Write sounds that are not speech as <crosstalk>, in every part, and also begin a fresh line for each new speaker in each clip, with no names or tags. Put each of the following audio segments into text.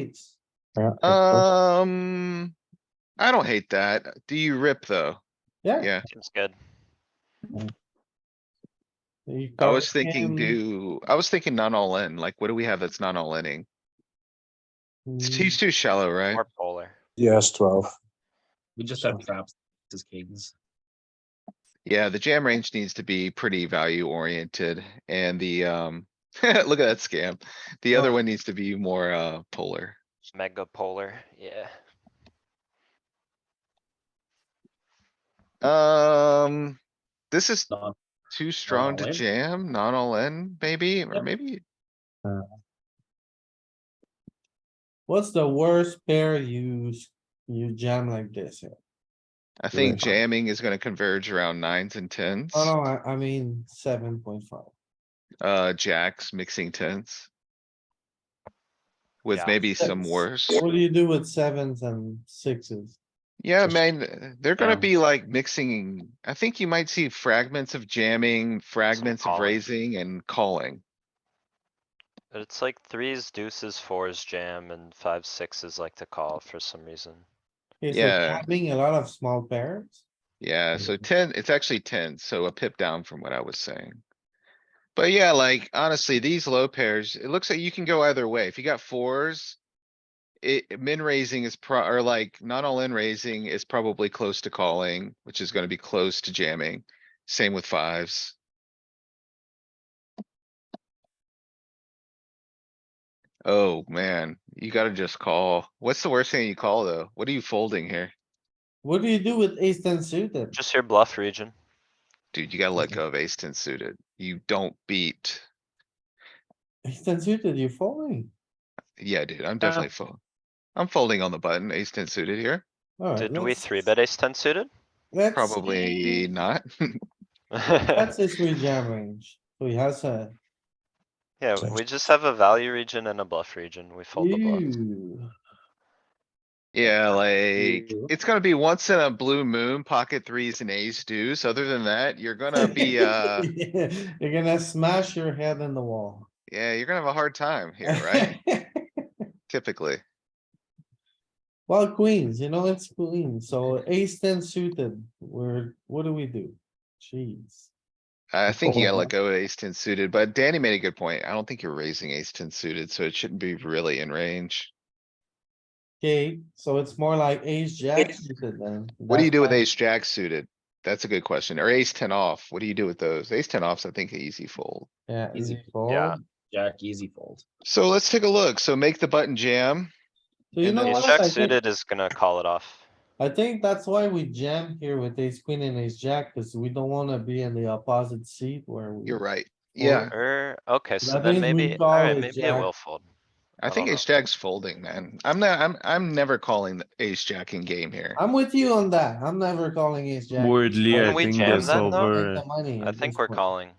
eights.
Uh,
Yeah, of course.
Um, I don't hate that. Do you rip though?
Yeah.
Yeah,
Seems good.
you
I
call
was thinking
Oh, him,
do, I was thinking not all in, like what do we have that's not all inning? It's-
mm,
He's too shallow, right?
More polar.
Yes, twelve.
We just have traps as kings.
Yeah, the jam range needs to be pretty value oriented and the, um, <laughs> look at that scam. The other one needs to be more, uh, polar.
Mega polar, yeah.
Um, this is
Not
too strong
all
to
in?
jam, not all in, maybe, or
Yep.
maybe,
What's the worst pair you, s- you jam like this? here?
I think
Right.
jamming is gonna converge around nines and tens.
Oh, no, I, I mean, seven point five.
Uh, jacks mixing tens. With
Yeah.
maybe some
That's-
worse.
What do you do with sevens and sixes?
Yeah,
Just-
man, uh, they're gonna
Um
Yeah.
be like mixing. I think you might see fragments of jamming, fragments of
calling.
raising and calling.
But it's like threes, deuces, fours jam and five, sixes like to call for some reason.
Okay, so
Yeah.
Having a lot of small pairs.
Yeah, so ten, it's actually ten, so a pip down from what I was saying. But yeah, like honestly, these low pairs, it looks like you can go either way. If you got fours. It, min raising is pro, or like not all in raising is probably close to calling, which is gonna be close to jamming. Same with fives. Oh, man, you gotta just call. What's the worst thing you call though? What are you folding here?
What do you do with ace ten suited?
Just your bluff region.
Dude, you gotta let go of ace ten suited. You don't beat.
Ace ten suited, you folding?
Yeah, dude,
Uh-huh.
I'm definitely fold. I'm folding on the button, ace ten suited here.
Alright,
Did we
let's-
three bet ace ten suited?
let's
Probably
see.
not. <laughs>
That's his three jam range. So he has a,
<laughs> Yeah, we just have a value region and a bluff region. We fold the bluff.
ew,
Yeah, like,
Ew.
it's gonna be once in a blue moon, pocket threes and ace deuce. Other than that, you're
<laughs>
gonna be, uh,
You're gonna smash your head in the wall.
yeah, you're gonna have a hard time here,
<laughs>
right? Typically.
Well, queens, you know, it's queens, so ace ten suited, we're, what do we do? Jeez.
I think you gotta
Fold.
let go of ace ten suited, but Danny made a good point. I don't think you're raising ace ten suited, so it shouldn't be really in range.
Okay, so it's more like ace jack suited then.
What do you
That's
do with
why-
ace jack suited? That's a good question. Or ace ten off. What do you do with those? Ace ten offs, I think, an easy fold.
Yeah,
Easy.
easy fold.
Yeah.
So
Jack easy fold.
So let's take a look. So make the button jam.
you
And
know
then
Ace
what?
jack
I think-
suited is gonna call it off.
I think that's why we jam here with ace queen and ace jack, cause we don't wanna be in the opposite seat where we.
You're right. Yeah,
Or, Er, okay, so
That
then
means we
maybe,
call
alright,
it
maybe it
jack.
will fold.
I
I
think
don't
ace jack's folding, man. I'm not, I'm, I'm never calling the ace jack in game here.
I'm with you on that. I'm never calling ace jack.
Weirdly,
Wouldn't
I
we
think
jam
the
then, though?
solver,
I think we're calling.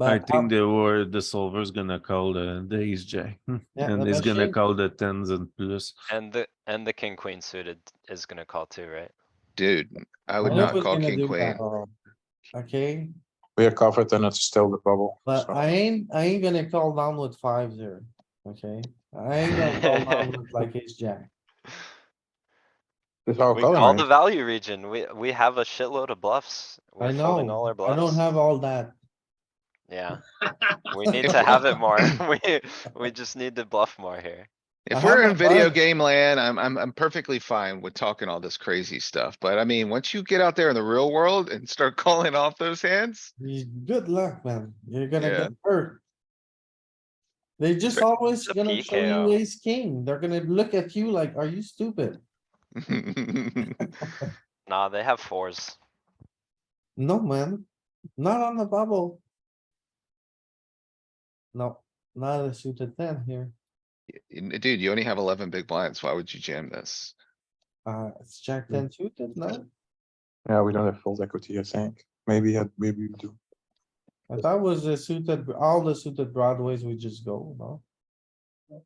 I think the word the solver is gonna call the the ace jack, <laughs> and he's gonna call the tens and plus.
And the, and the king queen suited is gonna call too, right?
Dude, I would not call king queen.
Okay,
We are covered and it's still the bubble.
but
so-
I ain't, I ain't gonna call down with fives here, okay? I ain't gonna call
<laughs>
down with like ace jack.
It's Oh, all
We call
calling,
the
right?
value region. We, we have a shitload of bluffs.
I
We're folding all our
know, I
bluffs.
don't have all that. <laughs>
Yeah, we need to have it more. <laughs> We, we just need to bluff more here.
I
If
have
we're
my
in video
button.
game land, I'm, I'm, I'm perfectly fine with talking all this crazy stuff. But I mean, once you get out there in the real world and start <laughs> calling off those hands, <laughs>
You- Good luck, man. You're gonna
Yeah.
get hurt. They just always
It's a
gonna show
PKO.
you ace king. They're gonna look at you like, are you stupid?
Nah, they have fours.
No, man, not on the bubble. No, not a suited ten here.
dude, you only have eleven big blinds. Why would you jam this?
Uh, it's jack ten suited, no?
Yeah, we don't have fold equity, I think. Maybe, yeah, maybe we do.
I thought it was a suited, all the suited broadways we just go, no?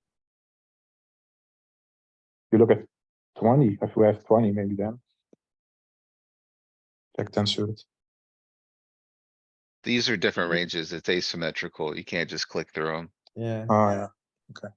You look at twenty, if we have twenty, maybe then. Jack ten suited.
These are different ranges. It's asymmetrical. You can't just click through them.
Yeah,
Oh, yeah.